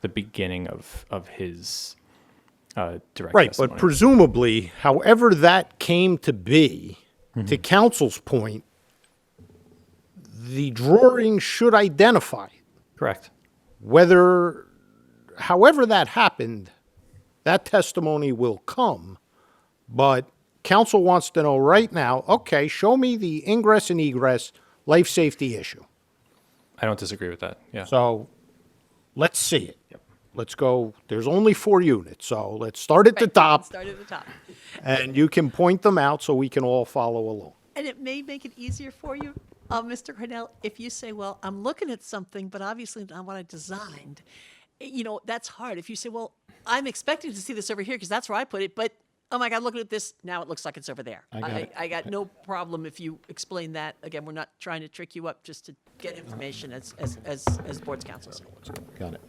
the beginning of of his uh, direct Right, testimony. but presumably, however that came to be, to counsel's point, the drawing should identify correct. whether, however that happened, that testimony will come. But counsel wants to know right now, okay, show me the ingress and egress life safety issue. I don't disagree with that. Yeah. So let's see it. Let's go, there's only four units, so let's start at the top. Start at the top. And you can point them out so we can all follow along. And it may make it easier for you, uh, Mr. Cornell, if you say, well, I'm looking at something, but obviously not what I designed. Eh, You know, that's hard. If you say, well, I'm expecting to see this over here because that's where I put it, but oh my God, looking at this, now it looks like it's over there. I got it. I got no problem if you explain that. Again, we're not trying to trick you up just to get information as, as, as, as boards councils. Got it.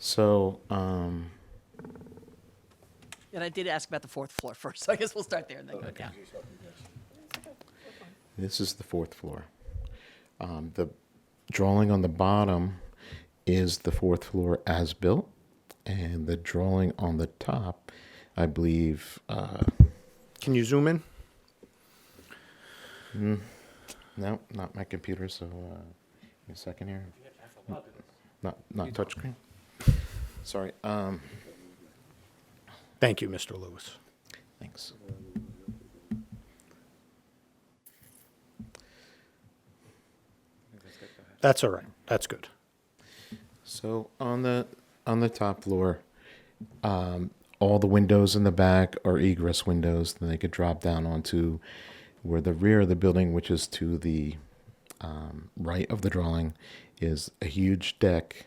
So, um, And I did ask about the fourth floor first, so I guess we'll start there and then go down. this is the fourth floor. Um, the drawing on the bottom is the fourth floor as built, and the drawing on the top, I believe, uh, Can you zoom in? no, not my computer. So, uh, give me a second here. Not not touchscreen. Sorry. Um, Thank you, Mr. Lewis. Thanks. That's all right. That's good. So on the on the top floor, um, all the windows in the back are egress windows. Then they could drop down onto where the rear of the building, which is to the um, right of the drawing, is a huge deck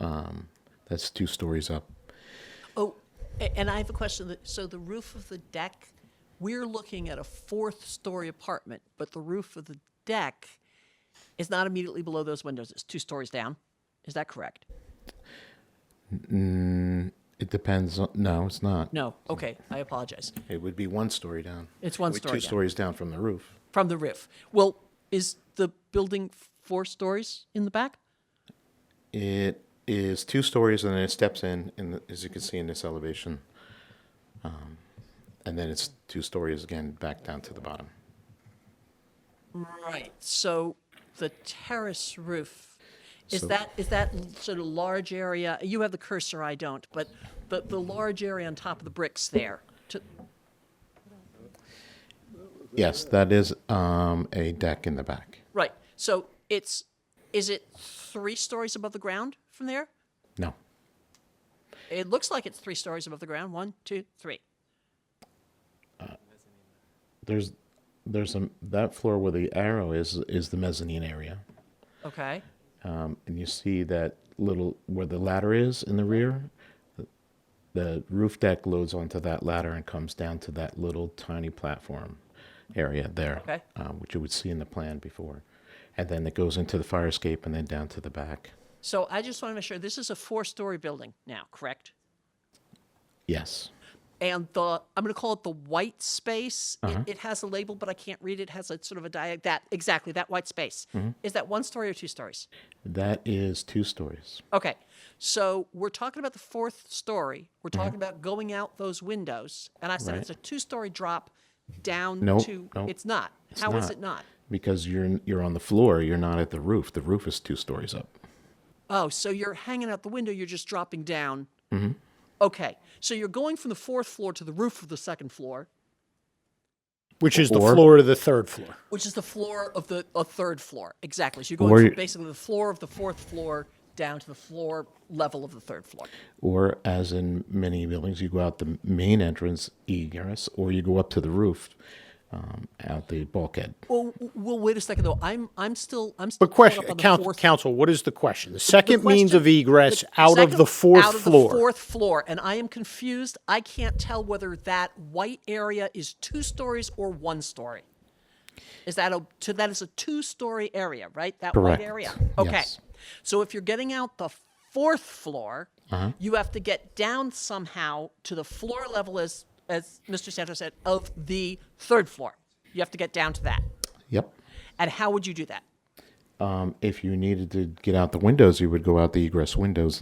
um, that's two stories up. Oh, a- and I have a question. that- So the roof of the deck, we're looking at a fourth-story apartment, but the roof of the deck is not immediately below those windows. It's two stories down. Is that correct? It depends. On, no, it's not. No. Okay, I apologize. It would be one story down. It's one It would be story Two down. stories down from the roof. From the roof. Well, is the building four stories in the back? It is two stories, and then it steps in, and as you can see in this elevation, um, and then it's two stories again back down to the bottom. Right. So the terrace roof, is So- that, is that l- sort of large area? You have the cursor, I don't, but the, the large area on top of the bricks there. to- Yes, that is um, a deck in the back. Right. So it's, is it three stories above the ground from there? No, It looks like it's three stories above the ground. One, two, three. there's there's a that floor where the arrow is is the mezzanine area, Okay. um, and you see that little where the ladder is in the rear. The roof deck loads onto that ladder and comes down to that little tiny platform area there, Okay. um, which you would see in the plan before. And then it goes into the fire escape and then down to the back. So I just want to make sure this is a four story building now, correct? Yes. And the, I'm going to call it the white space. It, it has a label, but I can't read it. It has a sort of a diag, that, exactly, that white space. Is that one story or two stories? That is two stories. Okay. So we're talking about the fourth story. We're talking about going out those windows. And I said Mm-hmm. Right. it's a two story drop down Nope, to. nope. It's not. It's How is not. it not? Because you're you're on the floor, you're not at the roof. The roof is two stories up. Oh, so you're hanging out the window, you're just dropping down. Mm-hmm. Okay. So you're going from the fourth floor to the roof of the second floor, Which is the Or- floor to the third floor. which is the floor of the a third floor. Exactly. So you're going Or from you- basically the floor of the fourth floor down to the floor level of the third floor. Or as in many buildings, you go out the main entrance egress, or you go up to the roof, um, out the bulkhead. Well, w- well, wait a second though. I'm I'm still I'm still But caught question, up on the count- fourth counsel, what is the question? The second means question- of egress the out of second- the out fourth of the floor. fourth floor, and I am confused. I can't tell whether that white area is two stories or one story. Is that a to that is a two-story area, right? That Correct. white area. Okay. Yes. So if you're getting out the fourth floor, Uh-huh. you have to get down somehow to the floor level, as as Mr. Santos said, of the third floor. You have to get down to that. Yep. And how would you do that? Um, if you needed to get out the windows, you would go out the egress windows